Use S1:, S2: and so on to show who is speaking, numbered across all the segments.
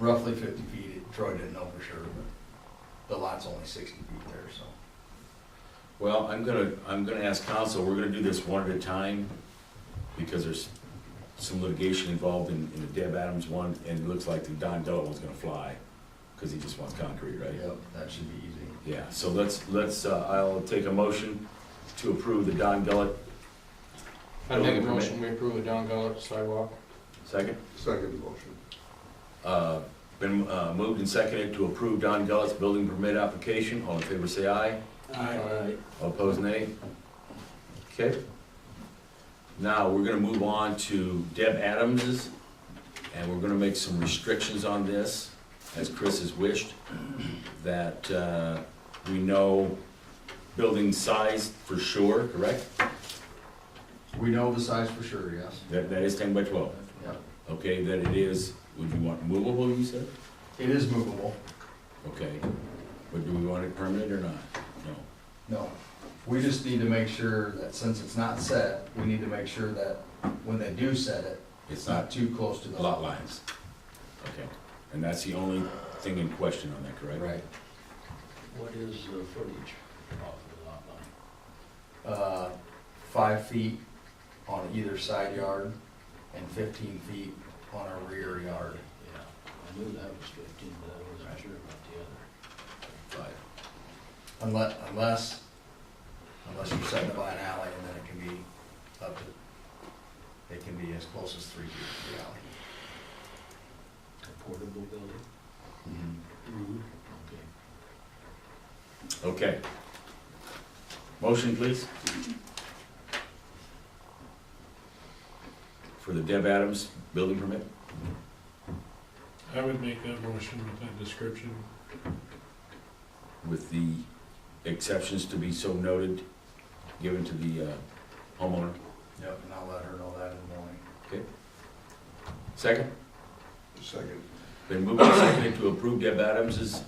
S1: roughly fifty feet. Troy didn't know for sure, but the lot's only sixty feet there, so.
S2: Well, I'm gonna, I'm gonna ask council, we're gonna do this one at a time, because there's some litigation involved in, in the Deb Adams one, and it looks like the Don Della one's gonna fly, because he just wants concrete, right?
S1: Yep, that should be easy.
S2: Yeah, so let's, let's, uh, I'll take a motion to approve the Don Della,
S3: I'd make a motion, we approve the Don Gullett sidewalk.
S2: second?
S4: Second motion.
S2: Uh, Been uh, moved and seconded to approve Don Gullett's building permit application, all in favor say aye,
S3: Aye.
S2: all opposed nay. Okay. Now, we're gonna move on to Deb Adams's, and we're gonna make some restrictions on this, as Chris has wished, that uh, we know building size for sure, correct?
S1: We know the size for sure, yes.
S2: That, that is ten by twelve,
S1: Yep.
S2: okay, that it is, would you want movable, you said?
S1: It is movable.
S2: Okay, but do we want it permanent or not? No.
S1: No. We just need to make sure that since it's not set, we need to make sure that when they do set it,
S2: It's
S1: it's not
S2: not
S1: too close to the.
S2: lot lines. Okay, and that's the only thing in question on that, correct?
S1: Right.
S5: What is the footage off the lot line?
S1: Uh, five feet on either side yard and fifteen feet on our rear yard.
S5: Yeah, I knew that was fifteen, but I wasn't sure about the other.
S2: Five.
S1: Unless, unless, unless you're setting it by an alley and then it can be up to, it can be as close as three feet to the alley.
S5: A portable building? Okay.
S2: Mm-hmm. Okay. Motion, please. For the Deb Adams building permit?
S6: I would make that motion with that description.
S2: with the exceptions to be so noted, given to the uh, homeowner.
S1: Yep, and I'll let her know that in the morning.
S2: Second,
S4: Second.
S2: been moved and seconded to approve Deb Adams's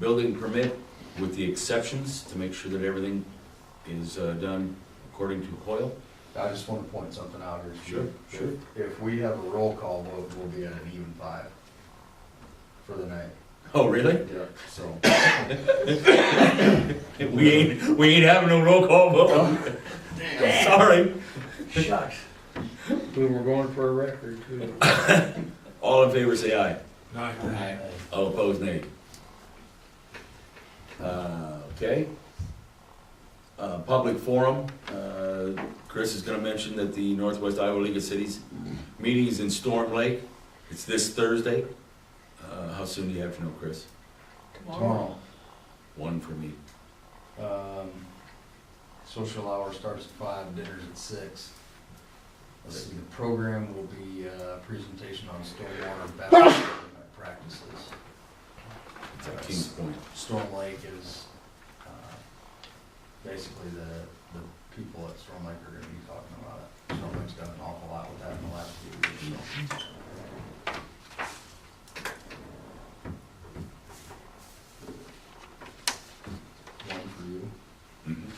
S2: building permit with the exceptions to make sure that everything is uh, done according to Hoyle.
S1: I just want to point something out here.
S2: Sure, sure.
S1: If we have a roll call vote, we'll be at an even five for the night.
S2: Oh, really?
S1: Yeah. So,
S2: We ain't, we ain't having no roll call vote. Sorry.
S5: Shucks.
S3: We were going for a record too.
S2: All in favor, say aye.
S6: Aye.
S2: All opposed, nay. Uh, Okay. Uh, Public forum, uh, Chris is gonna mention that the Northwest Iowa League of Cities meeting is in Storm Lake. It's this Thursday. Uh, How soon do you have to know, Chris?
S1: tomorrow,
S2: One for me.
S1: um, social hour starts at five, dinner's at six. Let's see, The program will be a presentation on stormwater best practices.
S2: It's at Kings Point.
S1: Storm Lake is, uh, basically the, the people at Storm Lake are gonna be talking about it. Storm Lake's done an awful lot with that in the last few years, so. One for you.
S2: Mhm.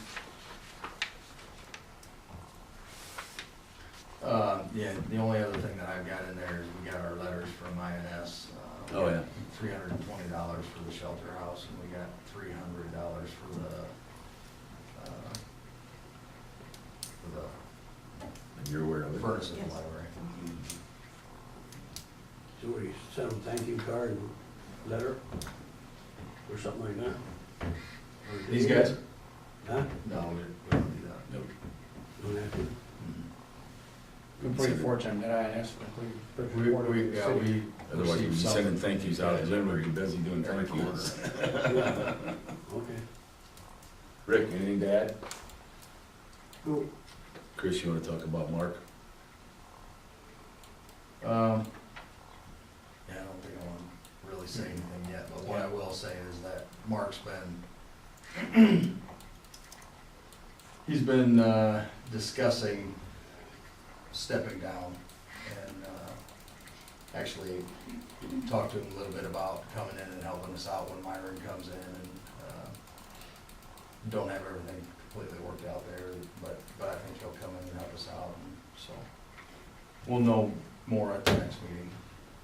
S1: Uh, yeah, the only other thing that I've got in there is we got our letters from INS. uh,
S2: Oh, yeah.
S1: three hundred and twenty dollars for the shelter house, and we got three hundred dollars for the, uh, for
S2: And You're aware of
S1: the
S2: it?
S1: furnace in
S7: Yes.
S1: the library.
S5: So we sent them thank you card and letter or something like that? Or did
S1: These
S5: you-
S1: guys?
S5: Huh?
S1: No, we we don't do that.
S2: Nope.
S5: Don't have to?
S2: Mm-hmm.
S3: Complete fortune that I asked, complete.
S1: But We, we, yeah, we.
S2: Otherwise, we'd be
S1: received
S2: sending
S1: something.
S2: thank yous out, and then we'd be busy doing
S1: Every
S2: thank
S1: quarter.
S2: yous.
S5: Yeah. Okay.
S2: Rick, anything to add?
S5: Cool.
S2: Chris, you wanna talk about Mark?
S1: Um, yeah, I don't think I wanna really say anything yet, but what I will say is that Mark's been, he's been, uh, discussing stepping down and, uh, actually talked to him a little bit about coming in and helping us out when Myron comes in and, uh, don't have everything completely worked out there, but, but I think he'll come in and help us out, and so. We'll know more at the next meeting.